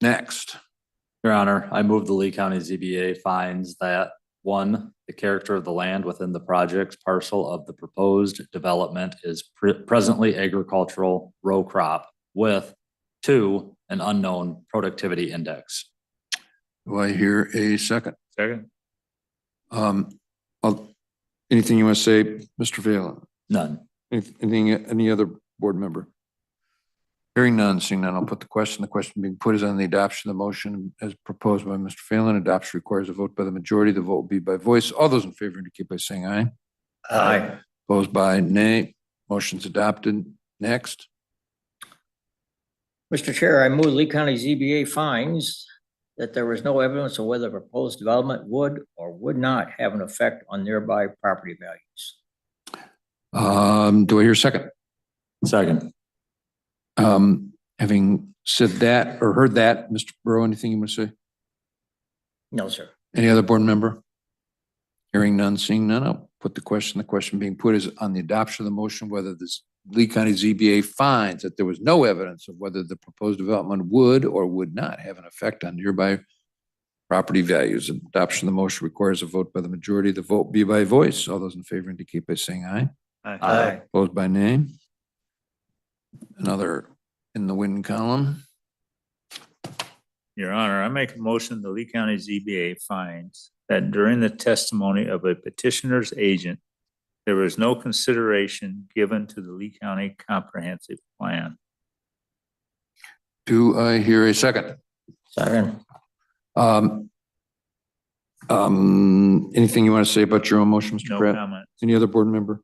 Next, Your Honor, I move the Lee County ZBA finds that, one, the character of the land within the project's parcel of the proposed development is pre- presently agricultural row crop with, two, an unknown productivity index. do I hear a second? Second. Um, I'll- anything you want to say, Mr. Vela? None. Anything, any other board member? Hearing none, seeing none, I'll put the question. The question being put is on the adoption of the motion as proposed by Mr. Phelan. Adoption requires a vote by the majority. The vote will be by voice. All those in favor indicate by saying aye. Aye. Um, Opposed by nay. Motion's adopted. Next, Mr. Chair, I move Lee County ZBA finds that there was no evidence of whether proposed development would or would not have an effect on nearby property values. um, do I hear a second? Second. Um, having said that or heard that, Mr. Burrow, anything you want to say? No, sir. Any other board member? Hearing none, seeing none, I'll put the question. The question being put is on the adoption of the motion, whether this Lee County ZBA finds that there was no evidence of whether the proposed development would or would not have an effect on nearby property values. Adoption of the motion requires a vote by the majority. The vote be by voice. All those in favor indicate by saying aye. Uh, Aye. Opposed by name. Another in the win column. Your Honor, I make a motion, the Lee County ZBA finds that during the testimony of a petitioner's agent, there was no consideration given to the Lee County Comprehensive Plan. Do I hear a second? Second. Um, um, anything you want to say about your own motion, Mr. No Pratt? comment. Any other board member?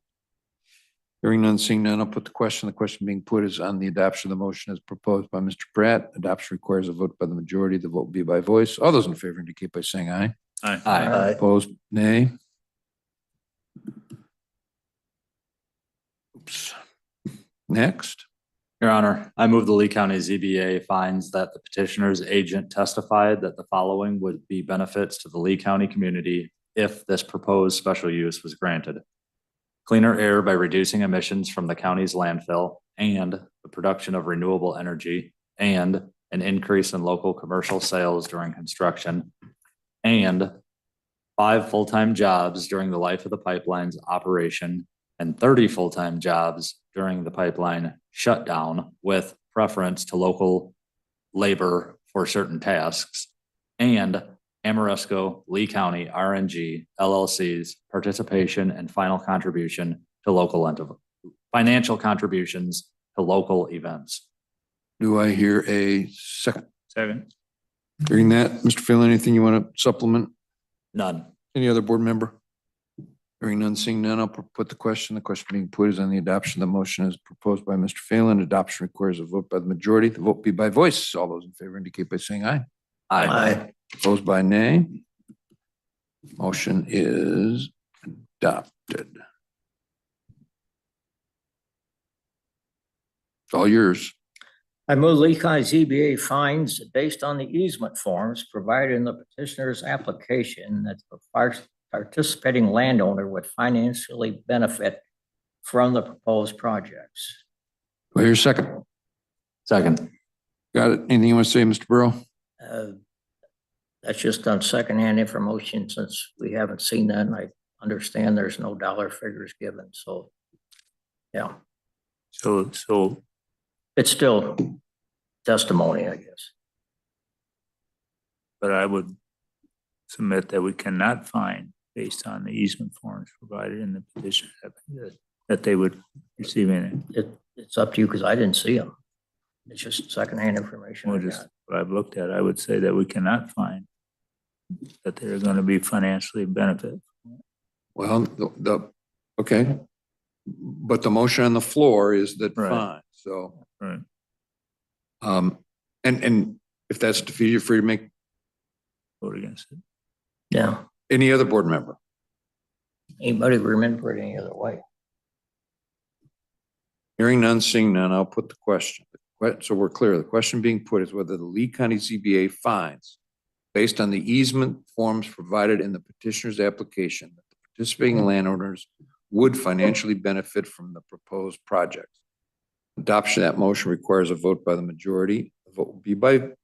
Hearing none, seeing none, I'll put the question. The question being put is on the adoption of the motion as proposed by Mr. Pratt. Adoption requires a vote by the majority. The vote will be by voice. All those in favor indicate by saying aye. Aye. Opposed, nay. Oops. Next, Your Honor, I move the Lee County ZBA finds that the petitioner's agent testified that the following would be benefits to the Lee County community if this proposed special use was granted. Cleaner air by reducing emissions from the county's landfill and the production of renewable energy and an increase in local commercial sales during construction and five full-time jobs during the life of the pipeline's operation and thirty full-time jobs during the pipeline shutdown with preference to local labor for certain tasks. And Amoresco, Lee County, RNG, LLC's participation and final contribution to local ent- financial contributions to local events. do I hear a second? Second. Hearing that, Mr. Phelan, anything you want to supplement? None. Any other board member? Hearing none, seeing none, I'll put the question. The question being put is on the adoption of the motion as proposed by Mr. Phelan. Adoption requires a vote by the majority. The vote be by voice. All those in favor indicate by saying aye. Opposed by nay. Motion is adopted. It's all yours. I move Lee County ZBA finds, based on the easement forms provided in the petitioner's application, that the par- participating landowner would financially benefit from the proposed projects. Do I hear a second? Second. Got it? Anything you want to say, Mr. Burrow? Uh, That's just on secondhand information, since we haven't seen that, and I understand there's no dollar figures given, so. Yeah, So, so it's still testimony, I guess. but I would submit that we cannot find, based on the easement forms provided in the petition, that- that they would receive any. It, it's up to you, because I didn't see them. It's just secondhand information. I Well, just got. what I've looked at, I would say that we cannot find that they're going to be financially benefit. Well, the- the, okay. But the motion on the floor is that Right. fine, so. Right. Um, and, and if that's defeated, you're free to make Vote against it. Yeah, any other board member. anybody remember it any other way? Hearing none, seeing none, I'll put the question. Que- So we're clear, the question being put is whether the Lee County ZBA finds, based on the easement forms provided in the petitioner's application, that the participating landowners would financially benefit from the proposed project. Adoption of that motion requires a vote by the majority. The vote will be by